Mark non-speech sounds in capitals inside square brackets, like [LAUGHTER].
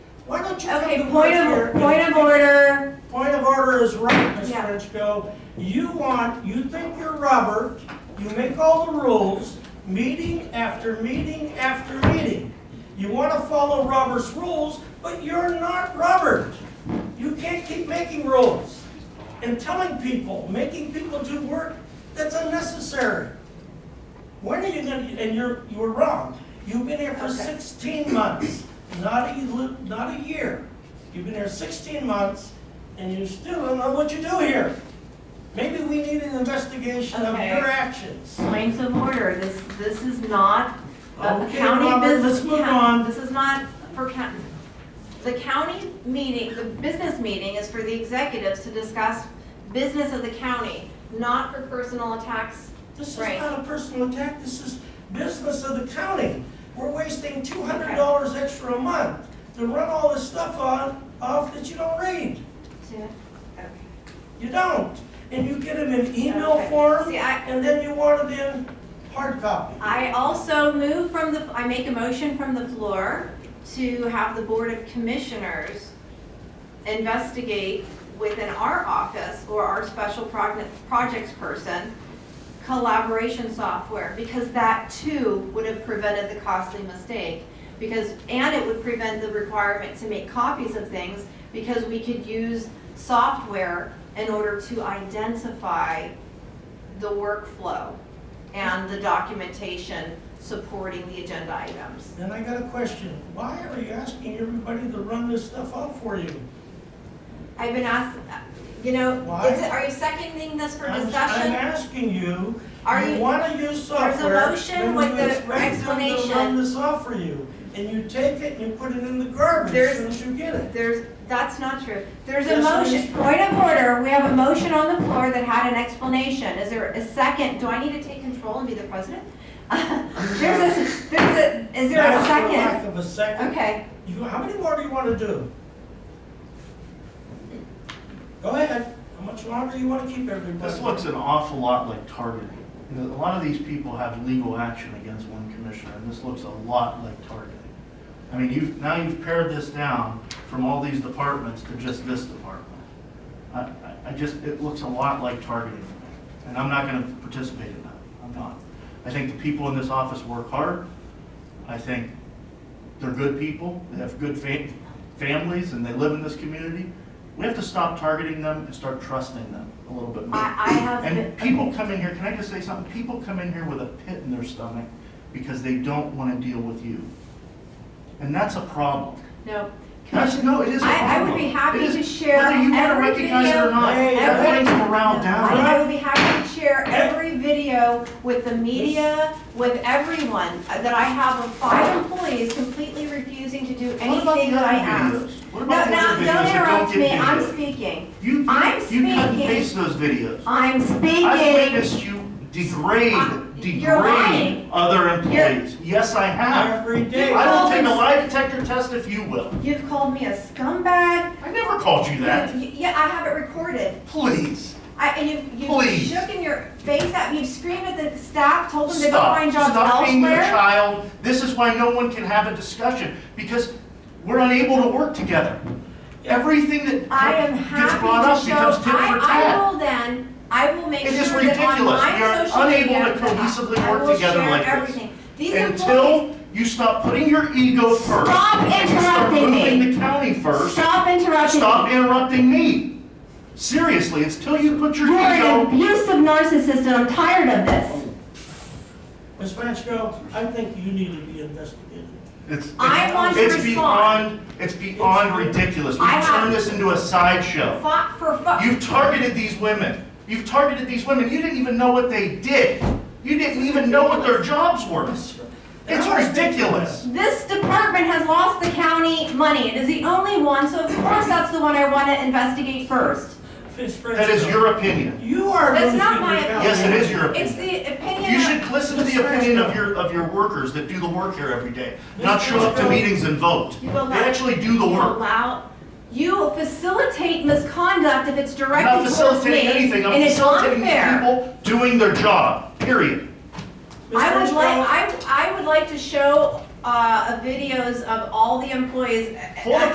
don't you come Okay, to point work of, here? point of order. Point of order is right, Ms. Yeah. Frenchco. You want, you think you're Robert, you make all the rules, meeting after meeting after meeting. You want to follow Robert's rules, but you're not Robert. You can't keep making rules and telling people, making people do work that's unnecessary. When are you gonna, and you're, you were wrong. You've been here for Okay. sixteen months, not a, li- not a year. You've been here sixteen months, and you still don't know what you do here. Maybe we need an investigation of Okay. your actions. Points of order. This, this is not a Okay, county Robert, business. let's move ca- on. This is not for county. The county meeting, the business meeting is for the executives to discuss business of the county, not for personal attacks. This is Right. not a personal attack, this is business of the county. We're wasting two hundred dollars extra a month to run all this stuff on, off that you don't read. to- You don't. And you get them in email Okay. form, See, I, and then you want it in hard copy. I also move from the, I make a motion from the floor to have the Board of Commissioners investigate within our office or our special prog- projects person collaboration software, because that too would have prevented the costly mistake. Because, and it would prevent the requirement to make copies of things, because we could use software in order to identify the workflow and the documentation supporting the agenda items. Then I got a question. Why are you asking everybody to run this stuff out for you? I've been asked, you know, Why? is it, are you seconding this for I'm- I'm discussion? asking you, Are you you- wanna use a software. motion then with you the expect them to explanation. run this off for you, and you take it and you put it in the garbage as There's- soon as you get it. There's, that's not true. There's a Yes, it motion, is. point of order, we have a motion on the floor that had an explanation. Is there a second? Do I need to take control and be the president? [LAUGHS] There's a, there's a, is there a That's the second? lack of a second. Okay, You, how many more do you wanna do? Go ahead. How much longer do you wanna keep everybody? This looks an awful lot like targeting. You know, A lot of these people have legal action against one commissioner, and this looks a lot like targeting. I mean, you've, now you've pared this down from all these departments to just this department. I, I- I just, it looks a lot like targeting to me, and I'm not gonna participate in that. I'm not. I think the people in this office work hard. I think they're good people, they have good fa- families, and they live in this community. We have to stop targeting them and start trusting them a little bit more. I, I have. been- And people come in here, can I just say something? People come in here with a pit in their stomach because they don't want to deal with you. And that's a problem. No. That's, no, it is a problem. I, I would be happy It to is- share Whether you want to every recognize it or video. not, Hey, that every- brings morale I I down. would be happy to share every video with the media, with everyone, uh, that I have of five employees completely refusing to do What about anything the that I other ask. videos? What No, about the no, other videos don't that interrupt get me, I'm viewed? speaking. You, you I'm cut and speaking. paste those videos. I'm I've speaking. witnessed you degrade, I- you're lying. degrade other employees. Yes, I have. Every day. I will take a Always. lie detector test if you will. You've called me a scumbag. I never called you You- that. you- Yeah, I have it recorded. Please, I, and you've, you've Please. shook in your face at me, you've screamed at the staff, told them to go stop. find jobs elsewhere. Stop being a child. This is why no one can have a discussion, because we're unable to work together. Everything that I am gets brought happy up to show, becomes tit for I, I tat. will then, I will make It is sure that on ridiculous. We my are social unable media, to that I- cohesively I work will together share like this. everything. These employees, Until you stop putting your ego first. Stop and you start interrupting me. moving the county first. stop interrupting Stop me. interrupting me. Seriously, it's till you put your You're an ego. abusive narcissist and I'm tired of this. Ms. Frenchco, I think you need to be investigated. It's- it's- I want to It's respond. beyond, it's beyond ridiculous. I We've have- turned this into a sideshow. Fought for fuck. You've targeted these women. You've targeted these women. You didn't even know what they did. You didn't even know what their jobs were. It's ridiculous. This department has lost the county money. It is the only one, so of course that's the one I want to investigate first. Ms. Frenchco. That is your opinion. You are That's losing your not my county. opinion. Yes, it is your It's opinion. the opinion You of, should listen to the opinion of your, of your workers that do the work here every day, not show up to meetings and vote. You They will not- actually do the you work. allow, you facilitate misconduct if it's I'm not directed towards me. facilitating anything, I'm and it's facilitating these unfair. people doing their job, period. Ms. I would Frenchco, like, I, I would like to show, uh, videos of all the employees. Hold on,